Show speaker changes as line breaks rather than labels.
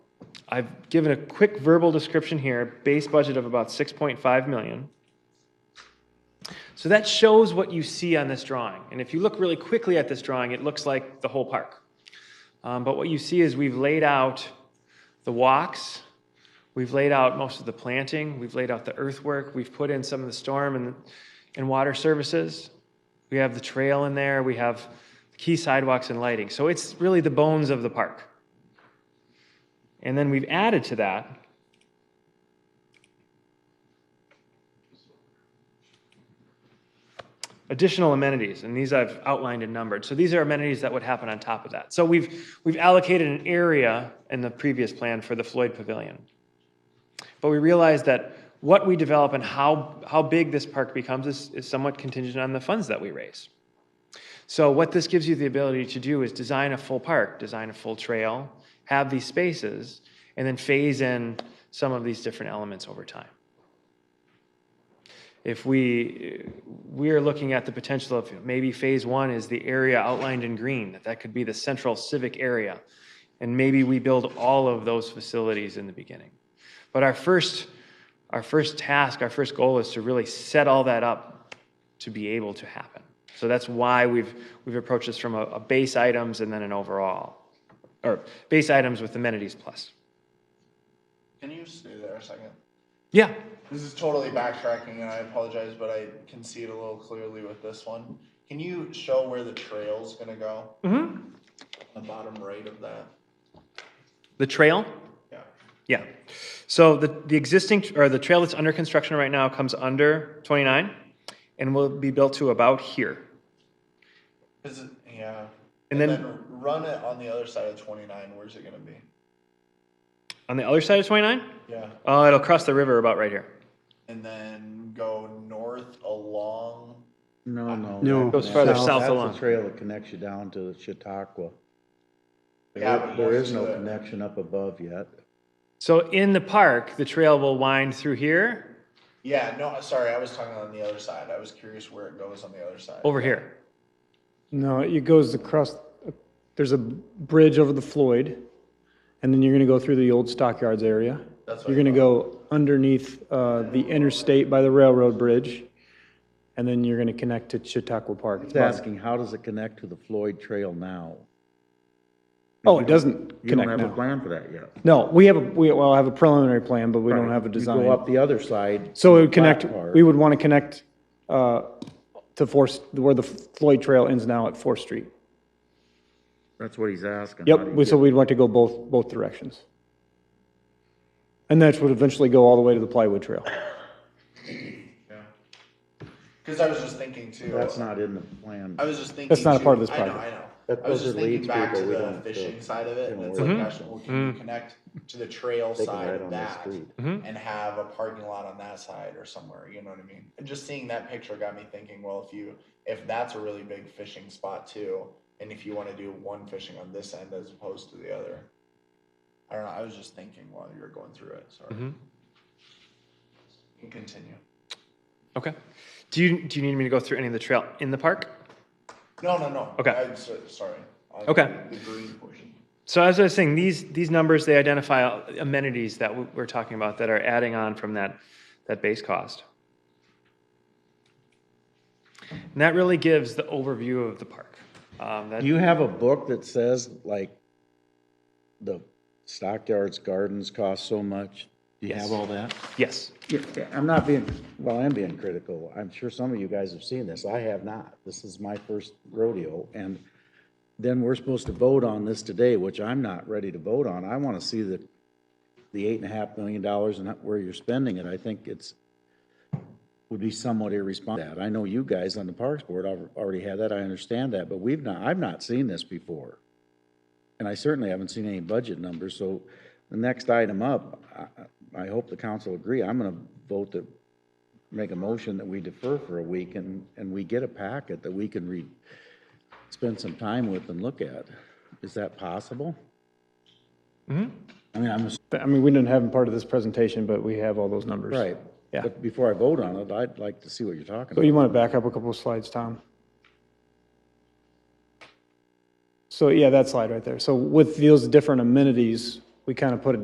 I've given a quick verbal description here, base budget of about 6.5 million. So that shows what you see on this drawing. And if you look really quickly at this drawing, it looks like the whole park. Um, But what you see is we've laid out the walks, we've laid out most of the planting, we've laid out the earthwork, we've put in some of the storm and, and water services. We have the trail in there, we have key sidewalks and lighting. So it's really the bones of the park. And then we've added to that additional amenities, and these I've outlined and numbered. So these are amenities that would happen on top of that. So we've, we've allocated an area in the previous plan for the Floyd Pavilion. But we realize that what we develop and how, how big this park becomes is, is somewhat contingent on the funds that we raise. So what this gives you the ability to do is design a full park, design a full trail, have these spaces, and then phase in some of these different elements over time. If we, we are looking at the potential of maybe phase one is the area outlined in green, that that could be the central civic area. And maybe we build all of those facilities in the beginning. But our first, our first task, our first goal is to really set all that up to be able to happen. So that's why we've, we've approached this from a, a base items and then an overall, or base items with amenities plus.
Can you stay there a second?
Yeah,
This is totally backtracking and I apologize, but I can see it a little clearly with this one. Can you show where the trail's gonna go?
hmm
The bottom right of that?
The trail,
Yeah.
yeah. So the, the existing, or the trail that's under construction right now comes under 29 and will be built to about here.
Is it, yeah.
And then-
Run it on the other side of twenty-nine, where's it gonna be?
On the other side of 29,
Yeah.
uh, it'll cross the river about right here.
And then go north along,
No, no.
No.
Goes farther south along.
That's the trail that connects you down to Chautauqua.
Yeah,
There
but
there is no
most of the-
connection up above yet.
So in the park, the trail will wind through here,
yeah, no, sorry, I was talking on the other side. I was curious where it goes on the other side.
over here.
No, it goes across, there's a bridge over the Floyd, and then you're going to go through the old stockyards area.
That's what
You're
I
going to go underneath uh, the interstate by the railroad bridge, and then you're going to connect to Chautauqua Park.
It's asking, how does it connect to the Floyd Trail now?
Oh, it doesn't
You don't
connect
have a
now.
plan for that yet.
No, we have, a we, well, I have a preliminary plan, but we don't
Right.
have a
You
design.
go up the other side.
So it
to
would
the
connect,
flat part.
we would want to connect uh, to Fourth, where the Floyd Trail ends now at Fourth Street.
That's what he's asking. How
Yep,
do you
we- so
get-
we'd want to go both, both directions. And that would eventually go all the way to the plywood trail.
Cause I was just thinking too.
That's not in the plan.
I was just thinking.
That's not a
too-
part of this
I know,
project.
I know.
That-
I was
those
just
are
thinking
leads
back to
people, we
the
don't,
fishing
uh,
side of it, and
don't
it's
worry
like,
about
gosh,
Mm-hmm.
well, can you connect to the trail
They can
side
ride
of
on the
that?
street.
And have a parking lot on that side or somewhere, you know what I mean? And just seeing that picture got me thinking, well, if you, if that's a really big fishing spot too, and if you wanna do one fishing on this end as opposed to the other. I don't know, I was just thinking while you were going through it, sorry.
Mm-hmm.
You can continue.
Okay. Do you, do you need me to go through any of the trail in the park?
No, no, no.
Okay.
I'm so, sorry. On
Okay.
The green portion.
So as I was saying, these, these numbers, they identify amenities that we- we're talking about that are adding on from that, that base cost. And that really gives the overview of the park. Um, that-
Do you have a book that says, like, the Stockyards Gardens cost so much? Do you
Yes.
have all that?
Yes.
Yeah, yeah, I'm not being, well, I'm being critical. I'm sure some of you guys have seen this. I have not. This is my first rodeo. And then we're supposed to vote on this today, which I'm not ready to vote on. I want to see the, the eight and a half million dollars and where you're spending it. I think it's, would be somewhat irresponsible. I know you guys on the Parks Board al- already had that. I understand that, but we've not, I've not seen this before. And I certainly haven't seen any budget numbers, so the next item up, I- I hope the council agree, I'm going to vote to make a motion that we defer for a week and, and we get a packet that we can read, spend some time with and look at. Is that possible? I mean, I'm,
But, I mean, we didn't have them part of this presentation, but we have all those numbers.
right,
Yeah.
but before I vote on it, I'd like to see what you're talking
So
about.
you want to back up a couple of slides, Tom? So, yeah, that slide right there. So with those different amenities, we kind of put a